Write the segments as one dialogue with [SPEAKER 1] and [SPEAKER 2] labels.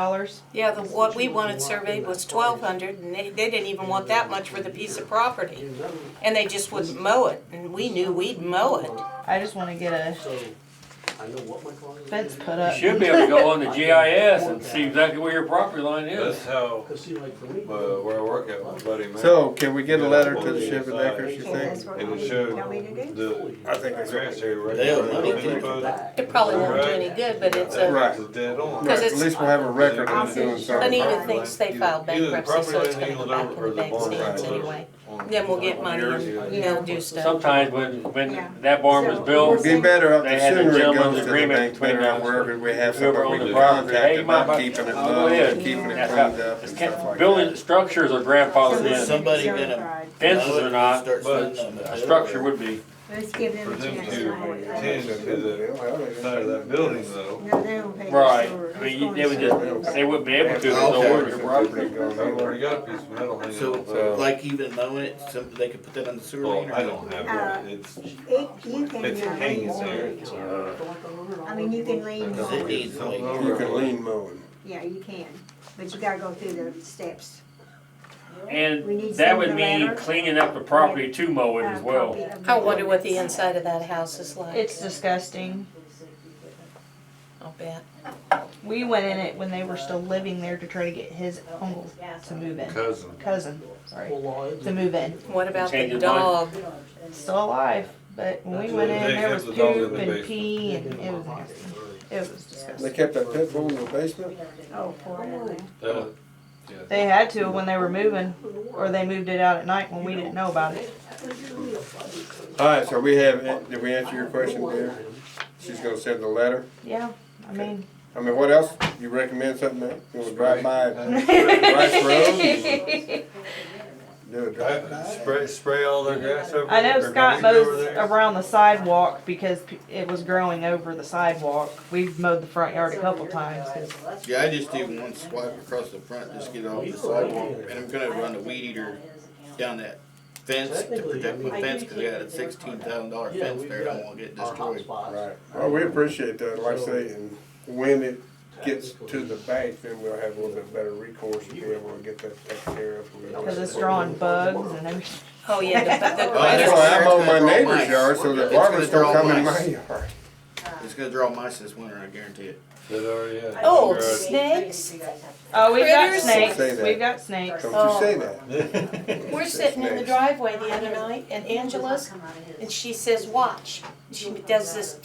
[SPEAKER 1] dollars.
[SPEAKER 2] Yeah, the, what we wanted surveyed was twelve hundred, and they, they didn't even want that much for the piece of property. And they just wouldn't mow it, and we knew we'd mow it.
[SPEAKER 1] I just wanna get a
[SPEAKER 3] So, I know what my client.
[SPEAKER 1] fence put
[SPEAKER 4] You
[SPEAKER 1] up.
[SPEAKER 4] should be able to go on the GIS and see exactly where your property line
[SPEAKER 5] That's
[SPEAKER 4] is.
[SPEAKER 5] how,
[SPEAKER 3] Cause see, like for
[SPEAKER 5] uh,
[SPEAKER 3] me.
[SPEAKER 5] where I work at, my buddy Matt.
[SPEAKER 6] So can we get a letter to the Shepherd Acres, you think?
[SPEAKER 5] And it showed
[SPEAKER 7] Tell me to do?
[SPEAKER 5] the
[SPEAKER 6] I think that's
[SPEAKER 5] grass area right
[SPEAKER 8] They
[SPEAKER 5] there.
[SPEAKER 8] don't know
[SPEAKER 5] Fence
[SPEAKER 8] anything.
[SPEAKER 5] post,
[SPEAKER 2] It probably won't do any good, but it's a,
[SPEAKER 6] Right.
[SPEAKER 5] That's dead on.
[SPEAKER 6] Right,
[SPEAKER 2] it's-
[SPEAKER 6] At least we'll have a record of doing something.
[SPEAKER 2] Anita thinks they filed
[SPEAKER 5] Either the
[SPEAKER 2] bankruptcy, so
[SPEAKER 5] property
[SPEAKER 2] it's gonna
[SPEAKER 5] line
[SPEAKER 2] go back
[SPEAKER 5] eagles
[SPEAKER 2] in the
[SPEAKER 5] over or
[SPEAKER 2] bank
[SPEAKER 5] the barn
[SPEAKER 2] stands
[SPEAKER 5] line goes
[SPEAKER 2] anyway.
[SPEAKER 5] on-
[SPEAKER 2] Then we'll get money and
[SPEAKER 5] Jersey.
[SPEAKER 2] they'll do stuff.
[SPEAKER 4] Sometimes when,
[SPEAKER 7] Yeah.
[SPEAKER 4] when that barn was
[SPEAKER 7] So-
[SPEAKER 6] It'd
[SPEAKER 4] built,
[SPEAKER 6] be better if the
[SPEAKER 4] They had a
[SPEAKER 6] sooner it
[SPEAKER 4] gentleman's
[SPEAKER 6] goes to the
[SPEAKER 4] agreement
[SPEAKER 6] bank,
[SPEAKER 4] between
[SPEAKER 6] better
[SPEAKER 4] us.
[SPEAKER 6] wherever we
[SPEAKER 4] whoever
[SPEAKER 6] have something we
[SPEAKER 4] owned the
[SPEAKER 6] can
[SPEAKER 4] property,
[SPEAKER 6] contact
[SPEAKER 4] hey, you mind
[SPEAKER 6] about
[SPEAKER 4] about-
[SPEAKER 6] keeping it
[SPEAKER 4] I'll go
[SPEAKER 6] low
[SPEAKER 4] ahead.
[SPEAKER 6] and keeping it
[SPEAKER 4] That's how-
[SPEAKER 6] cleaned up and
[SPEAKER 4] it's
[SPEAKER 6] stuff
[SPEAKER 4] ca-
[SPEAKER 6] like
[SPEAKER 4] Building
[SPEAKER 6] that.
[SPEAKER 4] structers are grandfathered in,
[SPEAKER 8] Somebody gonna-
[SPEAKER 7] Certified.
[SPEAKER 4] fences are not,
[SPEAKER 8] Start
[SPEAKER 5] but
[SPEAKER 8] spending on
[SPEAKER 4] a
[SPEAKER 8] it.
[SPEAKER 4] structure would be.
[SPEAKER 7] Let's give them
[SPEAKER 5] For
[SPEAKER 7] a
[SPEAKER 5] them
[SPEAKER 7] chance.
[SPEAKER 5] to
[SPEAKER 7] to-
[SPEAKER 5] tend to the side of that building though,
[SPEAKER 7] No, they don't pay. the
[SPEAKER 4] Right,
[SPEAKER 7] sewer.
[SPEAKER 4] I mean, you-
[SPEAKER 7] It's
[SPEAKER 4] they would
[SPEAKER 7] going
[SPEAKER 4] just, they wouldn't be able to,
[SPEAKER 6] Yeah,
[SPEAKER 4] no
[SPEAKER 6] okay.
[SPEAKER 4] order.
[SPEAKER 5] I've already got a piece of metal hanging off
[SPEAKER 8] So,
[SPEAKER 5] of.
[SPEAKER 8] like even mowing it, some, they could put that on the sewer
[SPEAKER 5] Well,
[SPEAKER 8] line or?
[SPEAKER 5] I don't
[SPEAKER 6] Uh,
[SPEAKER 5] have one, it's,
[SPEAKER 7] to- It, you can.
[SPEAKER 5] it's
[SPEAKER 7] uh,
[SPEAKER 5] hanging there, it's, uh,
[SPEAKER 7] I mean, you can lean
[SPEAKER 8] Does
[SPEAKER 7] on,
[SPEAKER 8] it
[SPEAKER 7] it.
[SPEAKER 8] need to
[SPEAKER 5] Something
[SPEAKER 8] leave?
[SPEAKER 6] You can lean mowing.
[SPEAKER 7] yeah, you can, but you gotta go through the steps. We need
[SPEAKER 4] And
[SPEAKER 7] to
[SPEAKER 4] that
[SPEAKER 7] send
[SPEAKER 4] would
[SPEAKER 7] the
[SPEAKER 4] mean
[SPEAKER 7] letter.
[SPEAKER 4] cleaning up the property to mow Oh, it
[SPEAKER 7] Uh,
[SPEAKER 4] as well.
[SPEAKER 7] copy of
[SPEAKER 2] I wonder what the inside of that house is like,
[SPEAKER 1] It's disgusting.
[SPEAKER 2] I'll bet.
[SPEAKER 1] We went in it when they were still living there to try to get his uncle to move in.
[SPEAKER 5] cousin.
[SPEAKER 1] Cousin, sorry,
[SPEAKER 3] Well, law is-
[SPEAKER 1] to move in.
[SPEAKER 2] What about the
[SPEAKER 4] Change your
[SPEAKER 2] dog?
[SPEAKER 4] mind.
[SPEAKER 1] Still alive, but when we went
[SPEAKER 5] That's what
[SPEAKER 1] in,
[SPEAKER 5] they
[SPEAKER 1] there
[SPEAKER 5] kept
[SPEAKER 1] was
[SPEAKER 5] the dog in
[SPEAKER 1] poop
[SPEAKER 5] the
[SPEAKER 1] and
[SPEAKER 5] basement.
[SPEAKER 1] pee and it was nasty. It was
[SPEAKER 6] They
[SPEAKER 1] disgusting.
[SPEAKER 6] kept that pit bull in the basement?
[SPEAKER 7] Oh, poor man.
[SPEAKER 5] Uh,
[SPEAKER 1] They had to when they were moving,
[SPEAKER 7] Oh,
[SPEAKER 1] or they moved it out at night when we didn't know about it.
[SPEAKER 6] Alright, so we have, did we answer your question there? She's gonna send the letter?
[SPEAKER 1] Yeah, I mean,
[SPEAKER 6] I mean, what else? You recommend something that, you wanna drive by
[SPEAKER 5] Spray-
[SPEAKER 6] Rice Road? Do a drive by?
[SPEAKER 5] Spray, spray all their grass over.
[SPEAKER 1] I know
[SPEAKER 5] there,
[SPEAKER 1] Scott
[SPEAKER 5] or weed over
[SPEAKER 1] mows
[SPEAKER 5] there.
[SPEAKER 1] around the sidewalk because p- it was growing over the sidewalk. We've mowed the front yard a couple times 'cause-
[SPEAKER 8] Yeah, I just do one swipe across the front, just get off the sidewalk, and I'm gonna run the weed eater down that fence to protect my fence, cause I got a sixteen thousand dollar
[SPEAKER 3] Yeah,
[SPEAKER 8] fence
[SPEAKER 3] we've
[SPEAKER 8] there, I don't
[SPEAKER 3] got
[SPEAKER 8] wanna get
[SPEAKER 3] our
[SPEAKER 8] destroyed.
[SPEAKER 3] hotspots.
[SPEAKER 6] Right, well, Oh, we appreciate that, like I say, and when it gets to the bank, then we'll have a little bit better recourse and be able to get that taken care of.
[SPEAKER 1] because it's drawing bugs and everything.
[SPEAKER 2] Oh, yeah, the, the
[SPEAKER 8] Oh, that's
[SPEAKER 2] grass-
[SPEAKER 6] That's why I mow my neighbor's yard, so the
[SPEAKER 8] It's gonna
[SPEAKER 6] barbers don't
[SPEAKER 8] draw
[SPEAKER 6] come in my
[SPEAKER 8] mice.
[SPEAKER 6] yard.
[SPEAKER 7] Uh,
[SPEAKER 8] It's gonna draw mice this winter, I guarantee it.
[SPEAKER 5] That already had.
[SPEAKER 2] Oh,
[SPEAKER 5] Right.
[SPEAKER 2] snakes?
[SPEAKER 1] Oh, we've got
[SPEAKER 2] Critters.
[SPEAKER 1] snakes,
[SPEAKER 6] Say that.
[SPEAKER 1] we've got snakes.
[SPEAKER 6] Don't you say that.
[SPEAKER 2] We're sitting in the driveway the other night, and Angela's And she says, watch. She does this.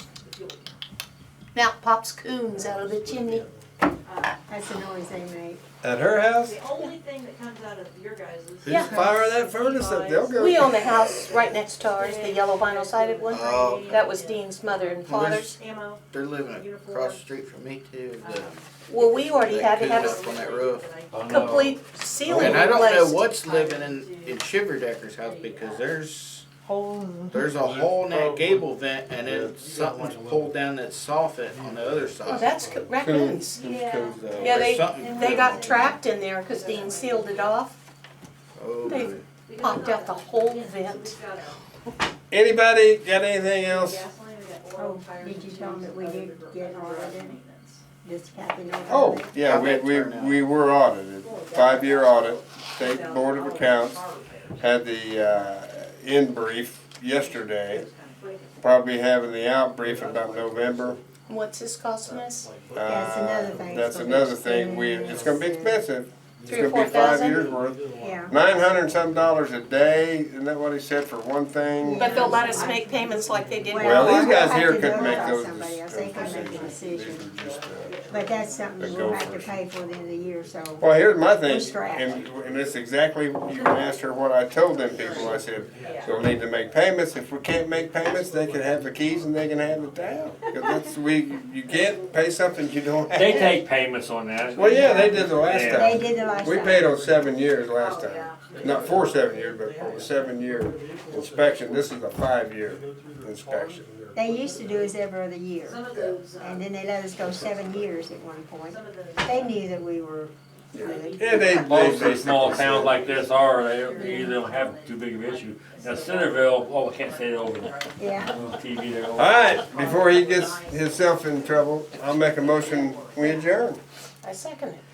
[SPEAKER 2] Now pops coons out of the chimney.
[SPEAKER 7] That's the noise they make.
[SPEAKER 6] At her house?
[SPEAKER 9] The only thing that comes out of your guys' is.
[SPEAKER 8] Yeah.
[SPEAKER 6] Just fire that furnace up, they'll go.
[SPEAKER 2] We own the house right next to ours, the yellow vinyl sided one.
[SPEAKER 8] Oh.
[SPEAKER 2] That was Dean's mother and father's. Um,
[SPEAKER 9] Ammo.
[SPEAKER 8] They're living across the street from me too, the,
[SPEAKER 2] Well, we already had to
[SPEAKER 8] that coon
[SPEAKER 2] have
[SPEAKER 8] up
[SPEAKER 2] a
[SPEAKER 8] on that roof.
[SPEAKER 5] I know.
[SPEAKER 2] complete ceiling
[SPEAKER 8] And I don't know
[SPEAKER 2] replaced.
[SPEAKER 8] what's living in, in Shiverdecker's house, because there's,
[SPEAKER 1] Holes.
[SPEAKER 8] There's a hole in that gable vent and then something's pulled down that soffit on the other
[SPEAKER 2] Oh,
[SPEAKER 8] side.
[SPEAKER 2] that's co- raccoons.
[SPEAKER 7] Yeah.
[SPEAKER 8] So
[SPEAKER 2] Yeah,
[SPEAKER 8] there's
[SPEAKER 2] they,
[SPEAKER 8] something
[SPEAKER 2] they got
[SPEAKER 8] going on.
[SPEAKER 2] trapped in there because Dean sealed it off,
[SPEAKER 8] Oh,
[SPEAKER 2] they-
[SPEAKER 8] boy.
[SPEAKER 2] popped out the whole vent.
[SPEAKER 6] Anybody got anything else?
[SPEAKER 7] Oh, did you tell them that we did get audited? Does Kathy know? about
[SPEAKER 6] Oh,
[SPEAKER 7] it?
[SPEAKER 6] yeah, we, we, we were audited, five-year audit, state board of accounts, had the, uh, in brief yesterday. Probably having the out brief about November.
[SPEAKER 2] What's this costing us?
[SPEAKER 7] That's another thing.
[SPEAKER 6] Uh, That's another thing, we, it's gonna be expensive, it's
[SPEAKER 2] Three or
[SPEAKER 6] gonna
[SPEAKER 2] four
[SPEAKER 6] be five
[SPEAKER 2] thousand?
[SPEAKER 6] years worth.
[SPEAKER 7] Yeah.
[SPEAKER 6] Nine hundred and some dollars a day, isn't that what he said for one thing?
[SPEAKER 2] But they'll let us make payments like they did before.
[SPEAKER 6] Well, these
[SPEAKER 7] we'll
[SPEAKER 6] guys
[SPEAKER 7] have
[SPEAKER 6] here
[SPEAKER 7] to
[SPEAKER 6] couldn't
[SPEAKER 7] vote
[SPEAKER 6] make
[SPEAKER 7] on
[SPEAKER 6] those
[SPEAKER 7] somebody else.
[SPEAKER 6] those
[SPEAKER 7] They can make a
[SPEAKER 6] decisions. These
[SPEAKER 7] decision.
[SPEAKER 6] were just, uh,
[SPEAKER 7] But that's something
[SPEAKER 6] They
[SPEAKER 7] we'll
[SPEAKER 6] go
[SPEAKER 7] have to
[SPEAKER 6] first.
[SPEAKER 7] pay for at the end of the year, so.
[SPEAKER 6] Well, here's my
[SPEAKER 7] We're
[SPEAKER 6] thing,
[SPEAKER 7] strapped.
[SPEAKER 6] and, and it's exactly, you can ask her what I told them people, I said, you'll need to make payments, if we can't make payments, they can have the keys and they can have it down. 'Cause that's, we, you can't pay something you don't have.
[SPEAKER 4] They take payments on that.
[SPEAKER 6] Well, yeah, they did the last
[SPEAKER 4] Yeah.
[SPEAKER 7] They
[SPEAKER 6] time,
[SPEAKER 7] did the last
[SPEAKER 6] we
[SPEAKER 7] time. Oh,
[SPEAKER 6] paid on seven years last time, not for seven years, but for a seven-year inspection, this is a five-year inspection.
[SPEAKER 7] They used to do us every other year,
[SPEAKER 9] Some of those, uh,
[SPEAKER 7] and then they let us go seven years at one point.
[SPEAKER 9] some of those.
[SPEAKER 7] They knew that we were really.
[SPEAKER 6] Yeah, they,
[SPEAKER 4] Most of
[SPEAKER 6] they
[SPEAKER 4] the small
[SPEAKER 6] basically
[SPEAKER 4] towns
[SPEAKER 6] said-
[SPEAKER 4] like this are, they, they don't have too big of an issue. Now Centerville, oh, I can't say it over the
[SPEAKER 7] Yeah,
[SPEAKER 4] on TV there.
[SPEAKER 6] All right, before he gets himself in trouble, I'll make a motion, we adjourn.
[SPEAKER 2] I second it.